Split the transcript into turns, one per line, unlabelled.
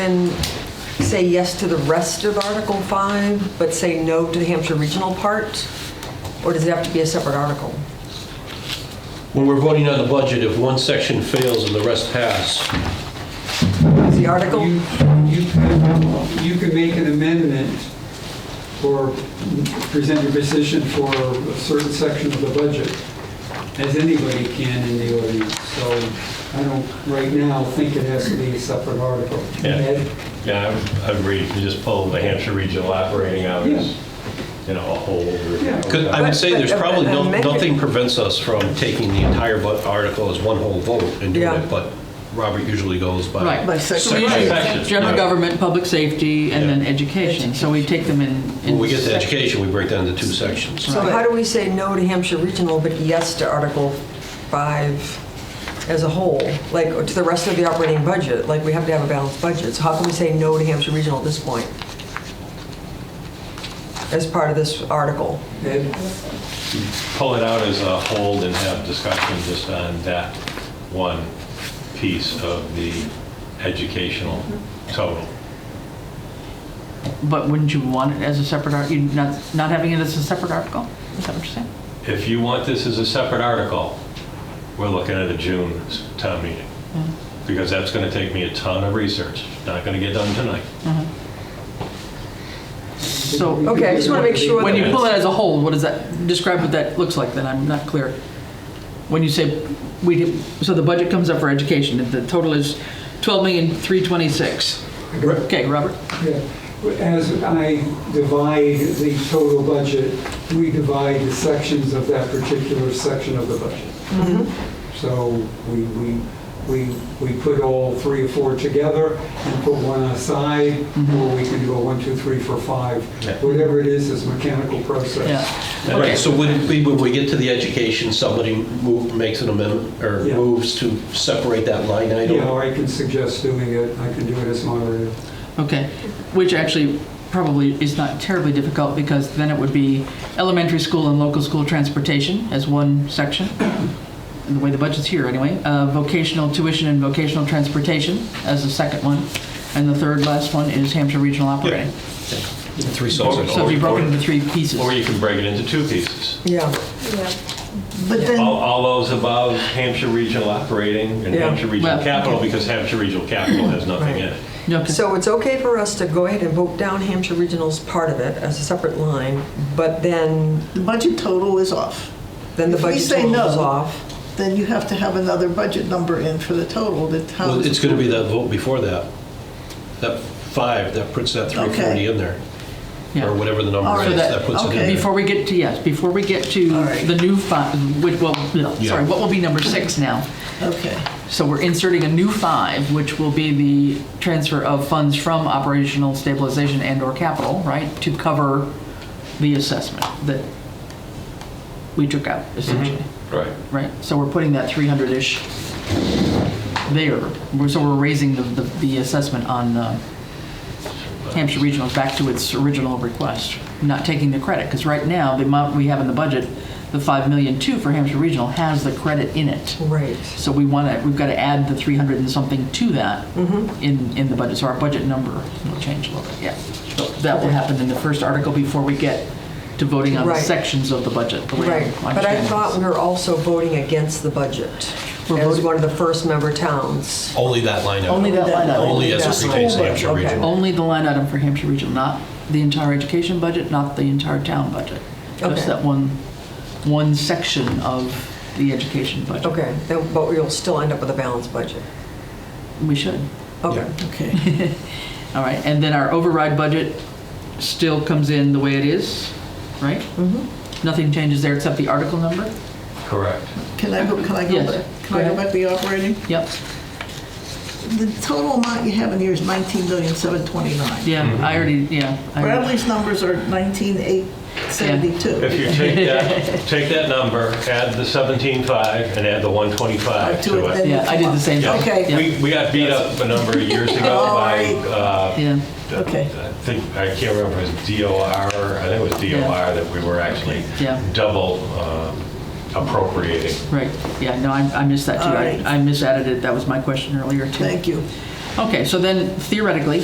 And say yes to the rest of Article 5, but say no to the Hampshire Regional part? Or does it have to be a separate article?
When we're voting on the budget, if one section fails and the rest pass,
Is the article?
You, you could, you could make an amendment or present your position for a certain section of the budget, as anybody can in the audience. So I don't, right now, think it has to be a separate article.
Yeah.
Ed?
Yeah, I- I agree, you just pull the Hampshire Regional Operating Hours, you know, a whole.
Yeah.
Could- I would say there's
But- but
probably no-
amendment-
nothing prevents us from taking the entire bu- article as one whole vote and doing
Yeah.
it, but Robert usually goes by.
Right.
By
So
section.
we
Right.
do
Section,
General
right.
government, public safety, and then education. So we take them in. in
When we get to
sec-
education, we break down into two sections.
So how do we say no to Hampshire Regional, but yes to Article 5 as a whole? Like, or to the rest of the operating budget, like, we have to have a balanced budget, so how can we say no to Hampshire Regional at this point? As part of this article?
Ed?
Pull it out as a whole and have discussion just on that one piece of the educational total.
But wouldn't you want it as a separate, art- you not, not having it as a separate article? Is that what you're saying?
If you want this as a separate article, we're looking at a June town meeting, because that's going to take me a ton of research, not going to get done tonight.
So
Okay, I just wanna make sure
when you
that-
pull it as a whole, what does that, describe what that looks like, then I'm not clear. When you say, we, did- so the budget comes up for education, and the total is 12,326. Okay, Robert?
Yeah. As I divide the total budget, we divide the sections of that particular section of the budget. So we, we, we, we put all three or four together and put one aside, or we can do a one, two, three, four, five.
Yeah.
Whatever it is, is mechanical process.
Yeah.
Right,
Okay.
so would it be, when we get to the education, somebody move- makes an amendment or
Yeah.
moves to separate that line
You know,
item?
I can suggest doing it, I can do it as moderator.
Okay, which actually probably is not terribly difficult because then it would be elementary school and local school transportation as one section, in the way the budget's here anyway, uh, vocational tuition and vocational transportation as the second one, and the third last one is Hampshire Regional Operating.
Three
Yeah.
So if you broke it into three pieces.
Or you can break it into two pieces.
Yeah.
But
All,
then,
all those above Hampshire Regional Operating and
Yeah.
Hampshire Regional
Well,
Capital,
okay.
because Hampshire Regional Capital has nothing in it.
Okay.
So it's okay for us to go ahead and vote down Hampshire Regional's part of it as a separate line, but then,
the budget total is off.
then the
If we
budget
say
total is
no.
off.
Then you have to have another budget number in for the total that
Well,
towns.
it's going to be that vote before that, that five, that puts that 340
Okay.
in there,
Yeah.
or whatever the number
All
is,
right.
that puts it in
Okay.
there.
Before we get to, yes, before we get to
All right.
the new, fi- which, well, no,
Yeah.
sorry, what will be number six now?
Okay,
So we're inserting a new five, which will be the transfer of funds from operational stabilization and/or capital, right, to cover the assessment that we took out, essentially,
Right.
right? So we're putting that 300-ish there. We're- So we're raising the, the- the assessment on uh, Hampshire Regional back to its original request, not taking the credit, because right now, the amount we have in the budget, the 5 million two for Hampshire Regional has the credit in it.
Right.
So we want to, we've got to add the 300 and something to that
Mm-hmm.
in, in the budget. So our budget number will change a little bit, yeah. So That will happen in the first article before we get to voting on the
Right.
sections of the budget, the way I
Right.
understand
But I
this.
thought we were also voting against the budget
We're
as
voting-
one of the first member towns.
Only that line item.
Only that line item.
Only as
Just
it
the
pertains to
whole
Hampshire
budget, okay.
Regional.
Only the line item for Hampshire Regional, not the entire education budget, not the entire town budget.
Okay.
Just that one, one section of the education budget.
Okay, then- but we'll still end up with a balanced budget.
We should.
Okay.
okay.
All right, and then our override budget still comes in the way it is, right?
Mm-hmm.
Nothing changes there except the article number?
Correct.
Can I go, can I go
Yes.
back? Can
Go
I go
ahead.
back to the operating?
Yep,
The total amount you have in here is 19,729.
yeah, I already, yeah. I already-
Bradley's numbers are 19,872.
If you take that, take that number, add the 17.5 and add the
Uh,
125
to it,
to
then-
it.
Yeah, I did the same
Yeah.
thing.
Okay.
Yeah,
We, we got beat up a number of years ago
All
by,
right.
uh,
Yeah,
Okay.
I think, I can't remember, if it was DOR, I think it was DOR that we were actually
Yeah.
double um, appropriating.
right, yeah, no, I I missed that too.
All
I
right.
I misadded it, that was my question earlier too.
Thank you.
Okay, so then theoretically,